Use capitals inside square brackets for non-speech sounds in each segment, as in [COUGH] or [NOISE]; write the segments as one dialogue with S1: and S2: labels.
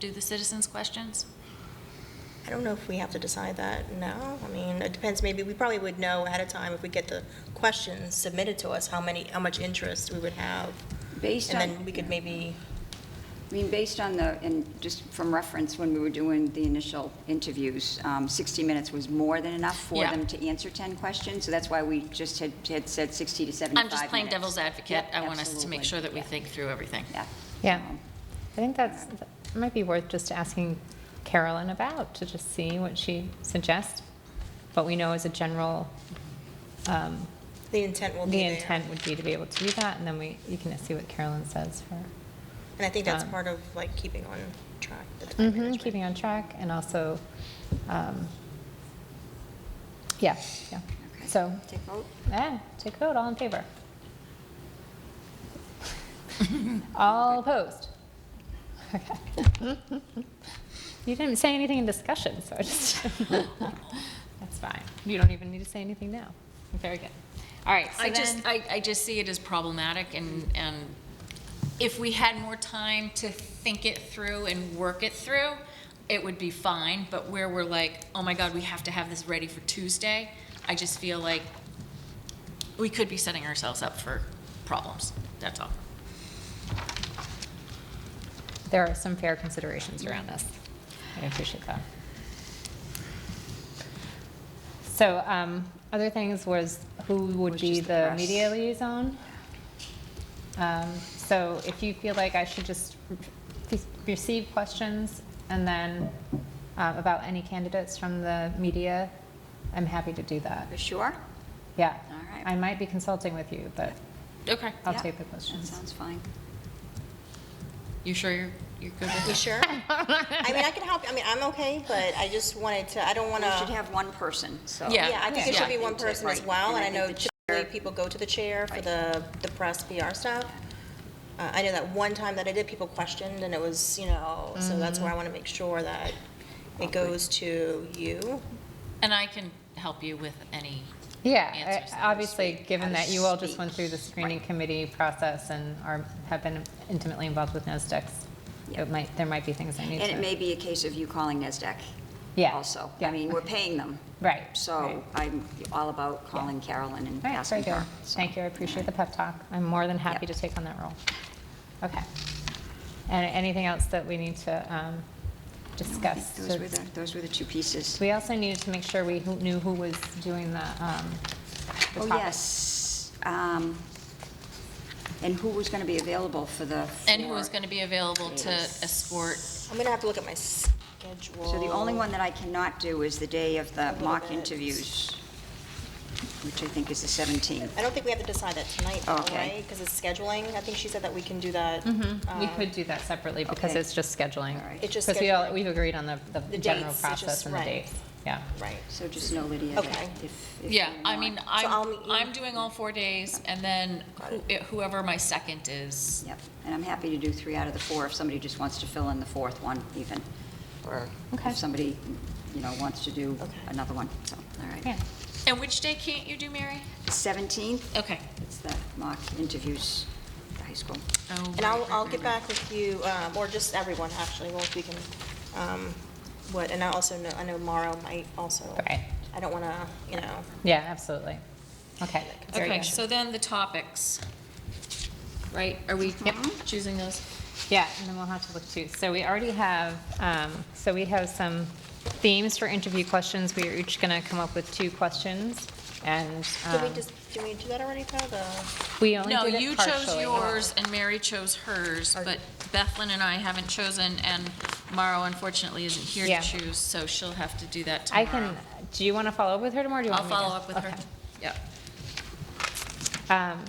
S1: do the citizens' questions?
S2: I don't know if we have to decide that now. I mean, it depends, maybe, we probably would know ahead of time if we get the questions submitted to us, how many, how much interest we would have.
S3: Based
S2: And then
S3: on,
S2: we could maybe,
S3: I mean, based on the, and just from reference, when we were doing the initial interviews, um, 60 minutes was more than enough for
S1: Yeah.
S3: them to answer 10 questions, so that's why we just had, had said 60 to 75
S1: I'm just playing
S3: minutes.
S1: devil's advocate.
S3: Yep,
S1: I want us to make
S3: absolutely.
S1: sure that we
S3: Yeah,
S1: think through everything.
S3: Yeah.
S4: Yeah,
S3: Um,
S4: I think that's, that might be worth just asking Carolyn about, to just see what she suggests. But we know as a general, um,
S2: the intent will be
S4: the
S2: there.
S4: intent would be to be able to do that, and then we, you can see what Carolyn says for,
S2: And I think that's
S4: um,
S2: part of like keeping on track. the time
S4: Mhm,
S2: management.
S4: keeping on track, and also, um, yeah, yeah.
S3: okay.
S4: So,
S3: Take vote?
S4: yeah, take a vote, all in favor? All opposed? Okay. You didn't say anything in discussion, so I just, [LAUGHS] that's fine. You don't even need to say anything now. Very good. All right, so
S1: I just,
S4: then,
S1: I, I just see it as problematic, and, and if we had more time to think it through and work it through, it would be fine, but where we're like, oh my God, we have to have this ready for Tuesday, I just feel like we could be setting ourselves up for problems, that's all.
S4: there are some fair considerations around this. I appreciate that. So, um, other things was who would
S3: Which
S4: be
S3: is the
S4: the
S3: press.
S4: media liaison? Um, so if you feel like I should just re- receive questions and then, uh, about any candidates from the media, I'm happy to do that.
S3: You sure?
S4: Yeah.
S3: All right.
S4: I might be consulting with you, but
S1: Okay,
S4: I'll
S3: Yeah,
S4: take the
S3: That
S4: questions.
S3: sounds fine.
S1: you sure you're, you're good with
S2: You
S1: that?
S4: [LAUGHS]
S2: sure? I mean, I can help, I mean, I'm okay, but I just wanted to, I don't want
S3: We
S2: to.
S3: should have one person, so.
S1: Yeah.
S2: Yeah, I think it should be
S3: Yeah.
S2: one person as
S3: Right.
S2: well, and I know
S3: think the
S2: typically
S3: chair-
S2: people go to the chair for
S3: Right.
S2: the, the press PR stuff. Uh, I know that one time that I did, people questioned, and it was, you know, so that's
S3: Mm-hmm.
S2: where I want to make sure that it goes to you.
S1: And I can help you with any,
S4: Yeah,
S1: Answers
S4: I-
S1: that I
S4: obviously,
S1: speak,
S4: given
S3: I
S4: that you all just went through the
S3: speak,
S4: screening
S3: right.
S4: committee process and are, have been intimately involved with NESDECs,
S3: Yeah.
S4: it might, there might be things I need to.
S3: And it may be a case of you calling NESDAQ.
S4: Yeah,
S3: Also.
S4: yeah.
S3: I mean, we're paying them.
S4: Right. right.
S3: So I'm all about calling Carolyn and
S4: All right, very
S3: asking
S4: good.
S3: her.
S4: Thank you, I appreciate the pep talk. I'm more than happy to
S3: Yep.
S4: take on that role. Okay. And anything else that we need to um, discuss?
S3: Those
S4: to-
S3: were the, those were the two pieces.
S4: We also needed to make sure we who- knew who was doing the, um, the
S3: Oh,
S4: talk.
S3: yes. Um, And who was going to be available for the.
S1: and who
S3: four
S1: is going to be available to
S3: days.
S1: escort
S2: I'm gonna have to look at my schedule.
S3: So the only one that I cannot do is the day of the
S2: little
S3: mock
S2: bit.
S3: interviews, which I think is the 17th.
S2: I don't think we have to decide that tonight, though,
S3: Oh, Okay. Mm-hmm.
S2: right? Because it's scheduling. I think she said that we can do that.
S4: Mm-hmm. We
S2: uh,
S4: could do that separately because
S3: Okay.
S4: it's just scheduling.
S3: All right.
S2: It's just
S4: Because we all,
S2: scheduling.
S4: we've agreed on the, the
S2: The
S4: general
S2: dates, it's
S4: process
S2: just-
S4: and the
S2: right.
S4: dates. Yeah.
S2: Right.
S3: So just know, Lydia, that
S2: Okay.
S3: if. if
S1: Yeah,
S3: you
S1: I
S3: want-
S1: mean,
S2: I'll
S1: I'm,
S2: meet you.
S1: I'm doing all four days, and then who- whoever my second is,
S3: Yep, and I'm happy to do three out of the four if somebody just wants to fill in the fourth one even, or
S4: Okay.
S3: if somebody, you know, wants to do
S2: Okay.
S3: another one, so, all right.
S4: Yeah.
S1: and which day can't you do, Mary?
S3: 17th,
S1: Okay.
S3: it's the mock interviews at the high school.
S2: And I'll, I'll get back with you, um, or just everyone, actually, well, if we can, um, what, and I also know, I know Mauro might also.
S4: Right.
S2: I don't want to, you know,
S4: Yeah, absolutely. Okay. very
S1: Okay,
S4: good.
S1: so then the topics, right, are we
S2: Mm-hmm.
S1: choosing those?
S4: Yeah, and then we'll have to look too. So we already have, um, so we have some themes for interview questions. We are each going to come up with two questions and
S2: did we
S4: um,
S2: just, did we do that already, Todd? The-
S4: we only
S1: No,
S4: did
S1: you
S4: it
S1: chose
S4: partially.
S1: yours and Mary chose hers, but Bethlyn and I haven't chosen, and Mara unfortunately isn't here
S4: Yeah.
S1: to choose, so she'll have to do that
S4: I
S1: tomorrow.
S4: can, do you want to follow up with her tomorrow? or do you
S1: I'll
S4: want me to?
S1: follow up with her.
S4: Okay.
S1: Yep.
S4: Um,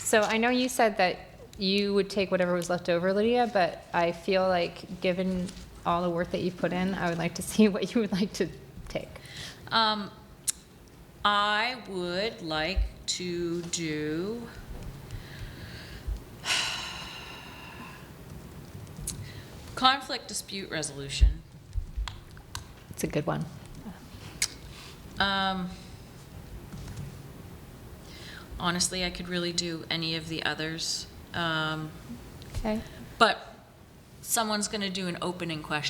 S4: So I know you said that you would take whatever was left over, Lydia, but I feel like, given all the work that you've put in, I would like to [LAUGHS] see what you would like to take.
S1: Um, I would like to do. Conflict dispute resolution.
S4: It's a good one.
S1: Um, honestly, I could really do any of the others. Um,
S4: Okay.
S1: but someone's going to do an opening question